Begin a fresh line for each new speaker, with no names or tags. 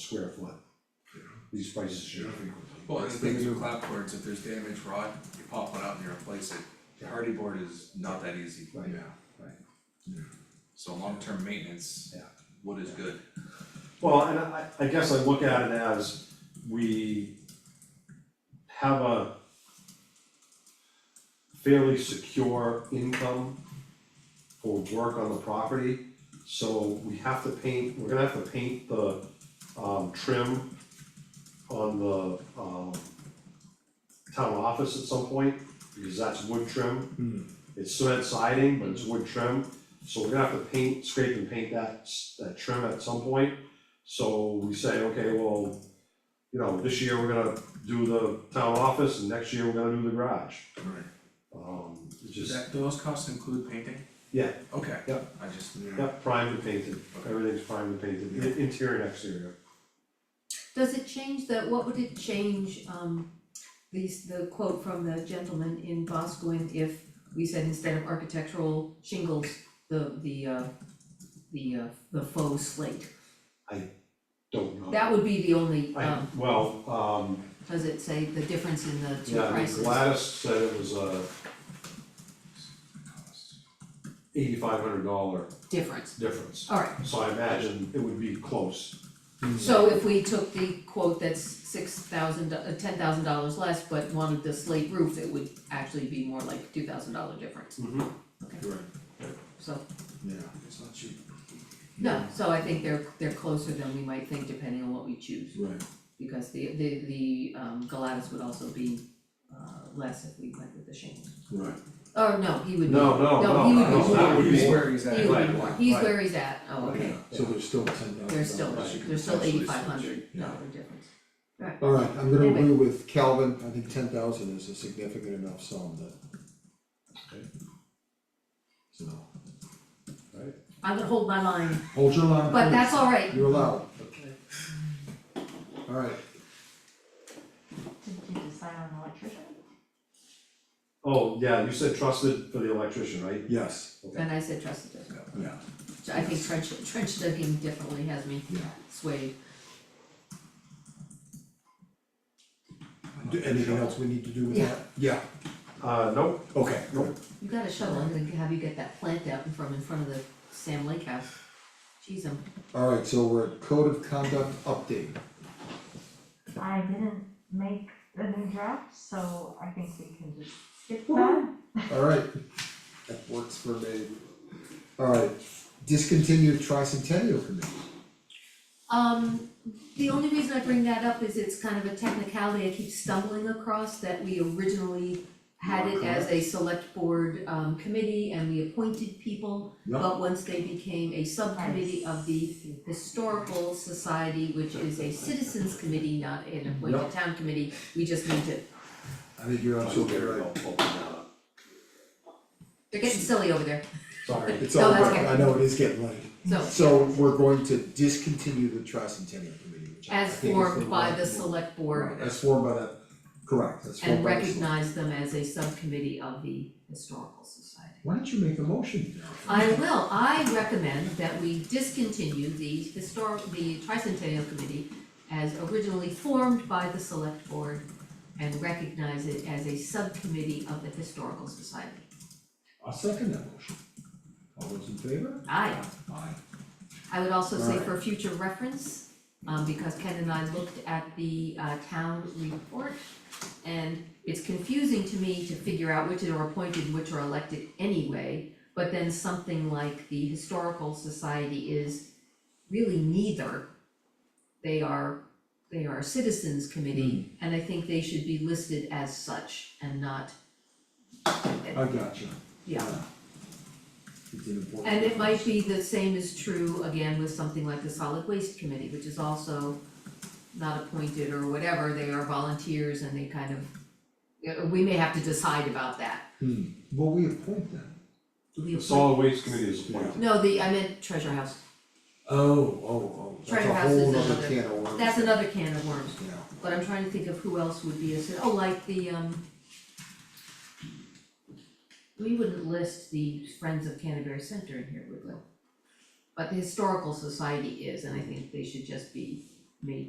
square foot. You know, These prices change frequently.
Well, and the thing is with clapboards, if there's damage rot, you pop one out and you replace it, hardy board is not that easy,
Right, right.
so long-term maintenance,
Yeah.
wood is good.
Well, and I, I guess I look at it as we have a fairly secure income for work on the property. So we have to paint, we're gonna have to paint the, um, trim on the, um, town office at some point, because that's wood trim. It's cement siding, but it's wood trim, so we're gonna have to paint, scrape and paint that, s- that trim at some point. So we say, okay, well, you know, this year we're gonna do the town office, and next year we're gonna do the garage.
Right.
Um, it's
Does
just,
that, do those costs include painting?
yeah,
Okay.
Yeah.
I just,
yeah, primed and painted, everything's primed and painted, i- interior and exterior.
Does it change the, what would it change, um, these, the quote from the gentleman in Boscoon if we said instead of architectural shingles, the, the, uh, the, uh, the faux slate?
Don't know.
That would be the only,
I,
um,
well, um,
does it say the difference in the two
yeah,
prices?
Gladys said it was a eighty-five hundred dollar
Difference,
difference.
alright,
So I imagine it would be close.
so if we took the quote that's six thousand, uh, ten thousand dollars less, but wanted the slate roof, it would actually be more like two thousand dollar difference,
Mm-hmm.
Right,
so.
yeah, it's not cheap.
No, so I think they're they're closer than we might think depending on what we choose,
Right.
because the the the um Galatas would also be uh less if we went with the shingles.
Right.
Oh, no, he would be,
No, no,
No,
no,
he would be-
no, that would
He's
be,
where he's at.
he would be
right,
more, he's where he's at, oh, okay,
So there's still ten thousand dollars.
there's still,
Right.
there's still
Potentially
eighty five hundred
yeah.
dollar difference.
Alright, I'm gonna
Anyway.
agree with Calvin, I think ten thousand is a significant enough sum that.
Okay.
So,
I'm gonna hold my line,
hold your line,
but that's
please,
all right.
you're allowed. Alright,
Did you decide on an electrician?
oh, yeah, you said trusted for the electrician, right?
yes,
And I said trusted does,
yeah,
So I think trench trench digging definitely has me
yeah.
swayed,
Do- Anything else we need to do with
Yeah.
that? Yeah.
Uh, nope,
Okay.
Nope.
you got a shovel, I'm gonna have you get that plant out in front, in front of the Sam Lake house. Jeez, I'm
Alright, so we're at code of conduct update,
I didn't make the new draft, so I think we can just skip that.
alright, that works for me. Alright, discontinued tricentennial committee,
Um, the only reason I bring that up is it's kind of a technicality I keep stumbling across that we originally had it as a select board um committee and we appointed people.
Yeah.
But once they became a subcommittee of the historical society, which is a citizens committee, not an
Yeah.
appointed town committee, we just need to,
I think you're absolutely right.
Oh,
they're getting silly over there,
sorry.
It's
No,
all
that's
right,
okay.
I know it is getting late.
so.
So we're going to discontinue the tricentennial committee, which I
As
think is the
formed by
right
the
move.
select
Right,
board
as formed by the, correct, as formed
and
by the select.
recognize them as a subcommittee of the historical society.
Why don't you make a motion now?
I will, I recommend that we discontinue the historic, the tricentennial committee as originally formed by the select board and recognize it as a subcommittee of the historical society.
I'll second that motion. All those in favor?
Aye,
Aye.
I would also say for future reference, um, because Ken and I looked at the, uh, town report and it's confusing to me to figure out which are appointed, which are elected anyway, but then something like the historical society is really neither. They are, they are a citizens committee, and I think they should be listed as such and not,
I got you.
yeah.
It's an important.
And it might be the same is true again with something like the solid waste committee, which is also not appointed or whatever, they are volunteers and they kind of, yeah, we may have to decide about that.
Hmm, well, we appoint them.
We
The
appoint-
solid waste committee is appointed.
No, the, I meant treasure house,
Oh, oh, oh, that's
Treasure
a
House is
whole other
another-
can of worms.
that's another can of worms,
Yeah,
but I'm trying to think of who else would be a, ci- oh, like the, um, we wouldn't list the Friends of Canterbury Center in here, would we? But the Historical Society is, and I think they should just be me.